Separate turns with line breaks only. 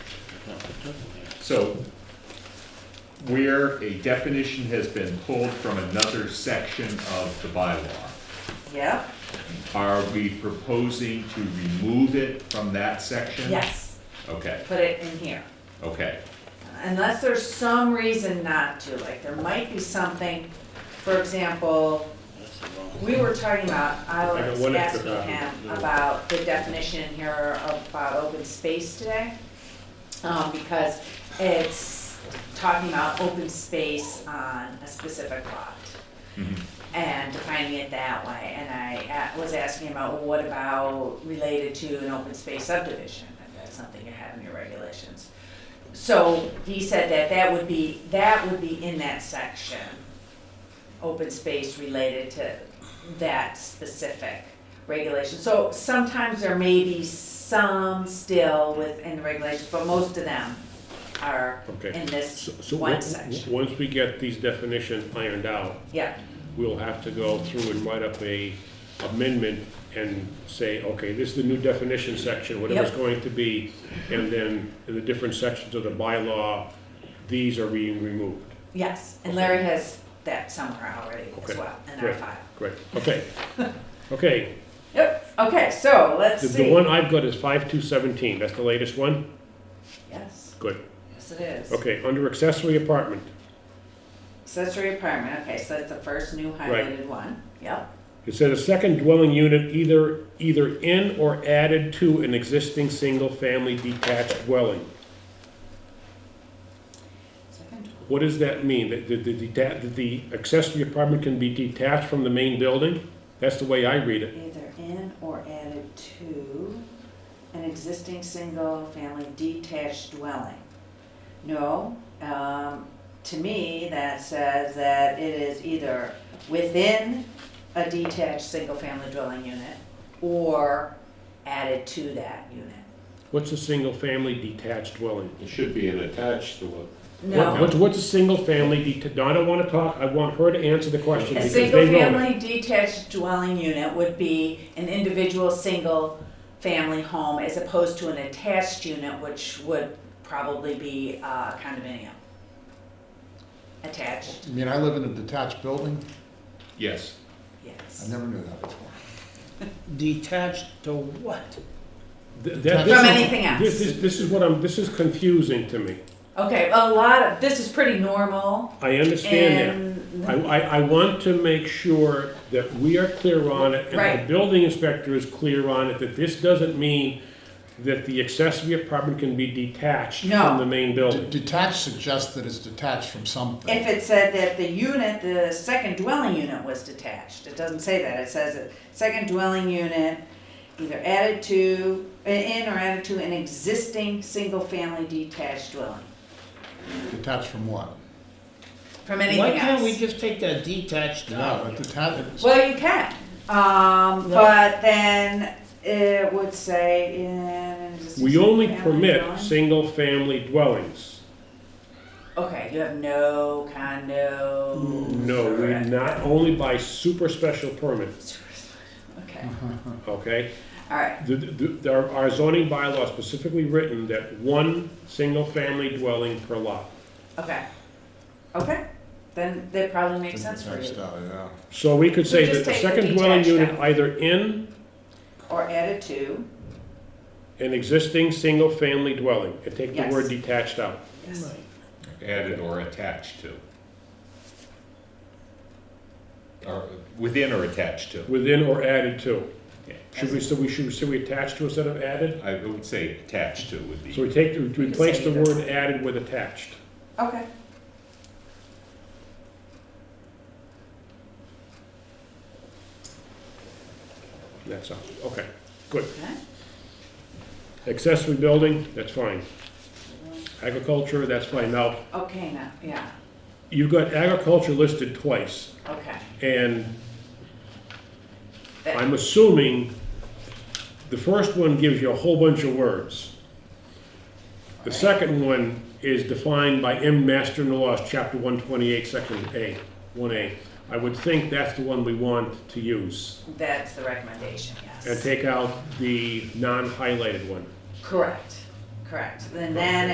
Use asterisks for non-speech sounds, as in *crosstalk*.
So where a definition has been pulled from another section of the bylaw,
Yeah,
are we proposing to remove it from that section?
yes,
Okay,
put it in here.
okay,
Unless there's some reason not to, like there might be something, for example, we were talking about, I
I got
was
one extra
asking him
copy.
about the definition in here of about open space today. Um, because it's talking about open space on a specific lot.
Mhm.
Mm-hmm.
And defining it that way, and I a- was asking about, well, what about related to an open space subdivision? If that's something you have in your regulations. So he said that that would be, that would be in that section, open space related to that specific regulation. So sometimes there may be some still within the regulations, but most of them are
Okay.
in this
So- so
one
on-
section.
Once we get these definitions ironed out,
Yeah,
we'll have to go through and write up a amendment and say, okay, this is the new definition section, whatever it's
Yep.
going to be. And then in the different sections of the bylaw, these are being removed.
yes, and Larry has that somewhere already as
Okay,
well in our
great.
file.
Great,
*laughs*
okay. Okay,
Yep, okay, so let's
the,
see.
the one I've got is five two seventeen, that's the latest one?
Yes,
Good,
yes it is.
okay, under accessory apartment,
Accessory apartment, okay, so that's the first new highlighted one, yep.
It said a second dwelling unit either, either in or added to an existing single-family detached dwelling.
Second one.
What does that mean? That the, the, deta- that the accessory apartment can be detached from the main building? That's the way I read it.
Either in or added to an existing single-family detached dwelling. No, um, to me, that says that it is either within a detached single-family dwelling unit or added to that unit.
What's a single-family detached dwelling?
It should be an attached to it.
What-
No,
What's, what's a single-family detached? I don't wanna talk, I want her to answer the question
a
because they know it.
single-family detached dwelling unit would be an individual single-family home as opposed to an attached unit, which would probably be uh, a condominium. Attached,
You mean I live in a detached building?
yes.
I
yes.
never knew that before.
Detached to what?
Th- that-
From
this is-
anything else.
This is, this is what I'm, this is confusing to me.
Okay, a lot of, this is pretty normal
I understand that.
and,
I, I, I want to make sure that we are clear on it, and
Right.
the building inspector is clear on it, that this doesn't mean that the accessory apartment can be detached
No.
from the main
De-
building.
Detached suggests that it's detached from
if
something.
it said that the unit, the second dwelling unit was detached, it doesn't say that, it says that second dwelling unit either added to, in or added to an existing single-family detached dwelling,
Detached from what?
from
Why
anything
can't we
else.
just take that detached
No,
out?
a detached,
Well, you can, um,
No.
but then it would say in. an existing
We only
single-family
permit
dwelling.
single-family dwellings.
Okay, you have no condo.
No, we not, only by super special permit,
Okay,
okay?
all right,
The, the, there are zoning bylaws specifically written that one single-family dwelling per lot.
okay, okay, then that probably makes sense for
detached
you,
out, yeah.
So we could say
just
that the
take the
second dwelling
detached
unit
out.
either in
or added to,
An existing single-family dwelling, and take the
Yes.
word detached out.
yes,
Added or attached to. Or within or attached to.
Within or added to.
Yeah.
Should we, so we should, should we attach to instead of added?
I would say attached to would
So
be,
we take, we replace
say
the
either.
word added with attached.
okay.
That's all, okay, good.
Okay.
Accessory building, that's fine. Agriculture, that's fine. Now,
Okay, now, yeah,
you've got agriculture listed twice,
okay.
and I'm assuming the first one gives you a whole bunch of words. The second one is defined by M. Master in the Laws, Chapter 128, Section A, 1A. I would think that's the one we want to use
That's the recommendation,
and
yes.
take out the non-highlighted one.
Correct, correct. And then